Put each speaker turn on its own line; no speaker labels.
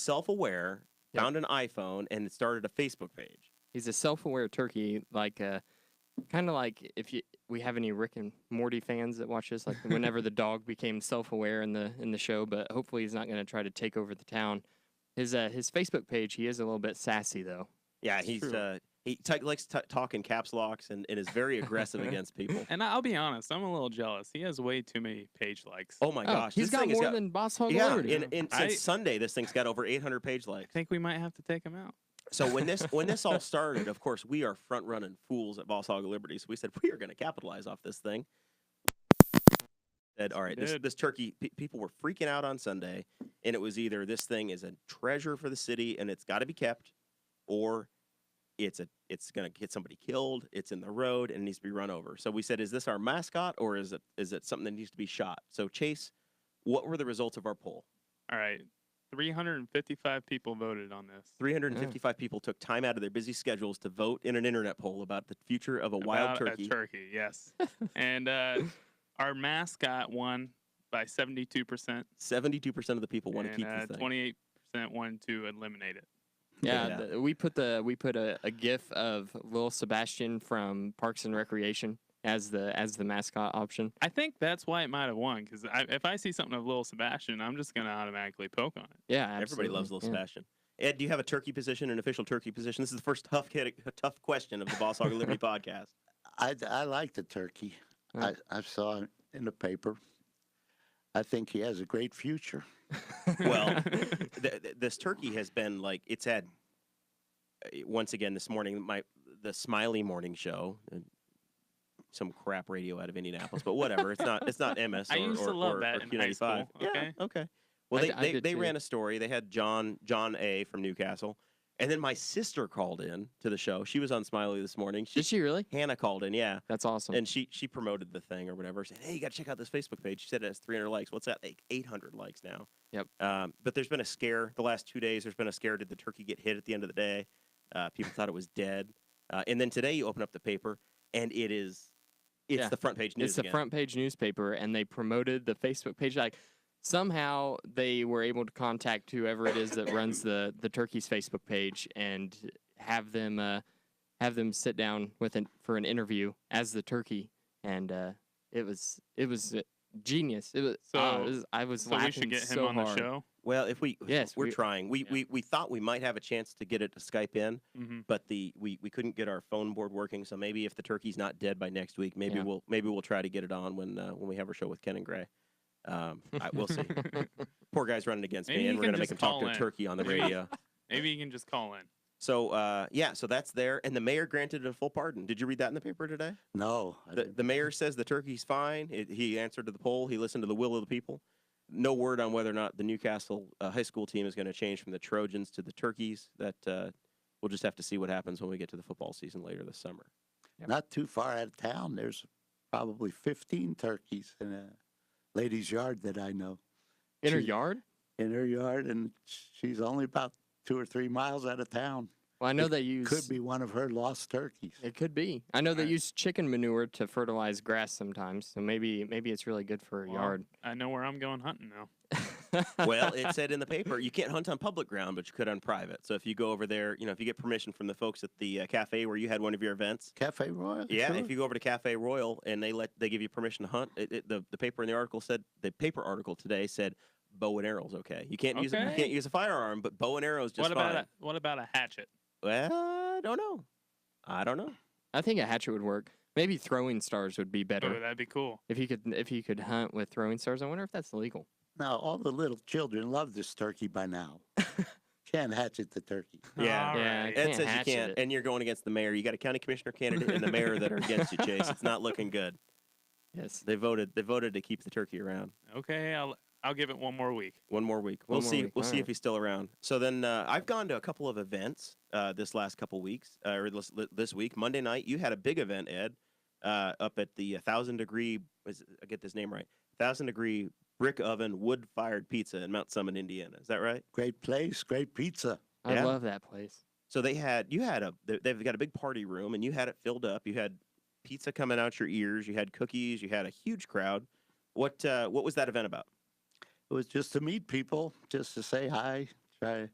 self-aware,
Yep.
found an iPhone, and it started a Facebook page.
He's a self-aware turkey, like uh, kind of like if you we have any Rick and Morty fans that watch this, like whenever the dog became self-aware in the in the show, but hopefully he's not going to try to take over the town. His uh, his Facebook page, he is a little bit sassy though.
Yeah,
It's
he's
true.
uh, he t- likes t- talk in caps locks and, and is very aggressive against people.
And I'll be honest, I'm a little jealous. He has way too many page likes.
Oh my
Oh,
gosh,
he's
this
got
thing has
more than Boss Hog
yeah.
Lord.
In,
now.
in, since
I-
Sunday, this thing's got over 800 page
I
likes.
think we might have to take him out.
So when this when this all started, of course, we are front running fools at Boss Hog Liberty. So we said we are going to capitalize off this thing. Said, all right, this,
did.
this turkey. Pe- people were freaking out on Sunday, and it was either this thing is a treasure for the city and it's got to be kept, or it's a it's going to get somebody killed. It's in the road and needs to be run over. So we said, is this our mascot or is it is it something that needs to be shot? So Chase, what were the results of our poll?
All right. 355 people voted on this.
355 people took time out of their busy schedules to vote in an internet poll about the future of a wild
About
turkey.
A turkey, yes. and uh, our mascot won by 72%.
72% of the people want to
and,
keep
uh,
this thing.
28% wanted to eliminate it.
Yeah,
Yeah.
The, we put the we put a, a gif of Lil Sebastian from Parks and Recreation as the as the mascot option.
I think that's why it might have won because if I see something of Little Sebastian, I'm just going to automatically poke on it.
Yeah,
Everybody loves Little
absolutely, yeah.
Sebastian. Ed, do you have a turkey position, an official turkey position? This is the first tough kid, tough question of the Boss Hog of Liberty podcast.
I, I like the turkey.
Yeah.
I, I saw it in the paper. I think he has a great future.
Well, Th- th- this turkey has been like it's had. uh, Once again, this morning, my the Smiley Morning Show, uh, some crap radio out of Indianapolis, but whatever. It's not it's not MS. Or,
I used to
or-
love
or-
that
or
in high
Q95.
school, okay?
Yeah, okay. Well,
I
they
d- I
they,
did
they
too.
ran a story. They had John John A from Newcastle, and then my sister called in to the show. She was on Smiley this morning. She,
Did she really?
Hannah called in, yeah,
That's awesome.
and she she promoted the thing or whatever. Said, hey, you got to check out this Facebook page. She said it has 300 likes. What's that? Like 800 likes now.
Yep.
Um, but there's been a scare the last two days. There's been a scare. Did the turkey get hit at the end of the day? Uh, people thought it was dead. Uh, and then today you open up the paper and it is it's
Yeah.
the front page news.
it's the
again.
front page newspaper, and they promoted the Facebook page. Like somehow they were able to contact whoever it is that runs the the turkey's Facebook page and have them uh, have them sit down with an, for an interview as the turkey, and uh, it was it was uh, genius. It was, ah,
So-
it was- I was
so
laughing
we should get him
so
on
hard.
the show.
Well, if we
Yes,
we're
we-
trying. We,
yeah.
we we thought we might have a chance to get it to Skype in,
hmm
but the we, we couldn't get our phone board working. So maybe if the turkey's not dead by next week, maybe
Yeah.
we'll maybe we'll try to get it on when uh, when we have our show with Ken and Gray. Um, I, we'll see. Poor guy's running against
Maybe
me,
he
and we're
can
gonna make
just
him talk
call
to a
in.
turkey on the radio.
Maybe you can just call in.
so uh, yeah, so that's there, and the mayor granted a full pardon. Did you read that in the paper today?
No, I
The,
didn't-
the mayor says the turkey's fine. It, he answered to the poll. He listened to the will of the people. No word on whether or not the Newcastle uh, high school team is going to change from the Trojans to the Turkeys. That uh, we'll just have to see what happens when we get to the football season later this summer.
not too far out of town. There's probably 15 turkeys in a lady's yard that I know
in her
She-
yard.
in her yard, and she's only about two or three miles out of town.
Well, I know
it
they use
Could be one of her lost turkeys.
It could be. I know they
Right.
use chicken manure to fertilize grass sometimes, so maybe maybe it's really good for a
Well,
yard.
I know where I'm going hunting now.
well, it said in the paper you can't hunt on public ground, but you could on private. So if you go over there, you know, if you get permission from the folks at the uh, cafe where you had one of your events,
Cafe Royal.
yeah,
sure.
if you go over to Cafe Royal and they let they give you permission to hunt, it, it- the the paper in the article said the paper article today said bow and arrows okay. You can't use a- you
Okay.
can't use a firearm, but bow and arrows just
what about
fine.
a, what about a hatchet?
Well, I don't know. I don't know.
I think a hatchet would work. Maybe throwing stars would be better
Oh, that'd be cool.
if you could if you could hunt with throwing stars. I wonder if that's legal.
Now, all the little children love this turkey by now. Can't hatchet the turkey.
Yeah.
All
Yeah,
right.
it-
Ed
can't
says you
hatchet
can't,
it.
and you're going against the mayor. You got a county commissioner candidate and the mayor that are against you, Chase. It's not looking good.
Yes.
They voted. They voted to keep the turkey around.
Okay, I'll I'll give it one more week.
One more week.
One
we'll
more
see.
week.
We'll see
Alright.
if he's still around. So then, uh, I've gone to a couple of events uh, this last couple weeks, uh, or this, this week. Monday night, you had a big event, Ed, uh, up at the Thousand Degree. Is, I get this name right. Thousand Degree Brick Oven Wood Fired Pizza in Mount Summit, Indiana. Is that right?
Great place, great pizza.
I
Yeah.
love that place.
So they had you had a they- they've got a big party room and you had it filled up. You had pizza coming out your ears. You had cookies. You had a huge crowd. What uh, what was that event about?
It was just to meet people, just to say hi, try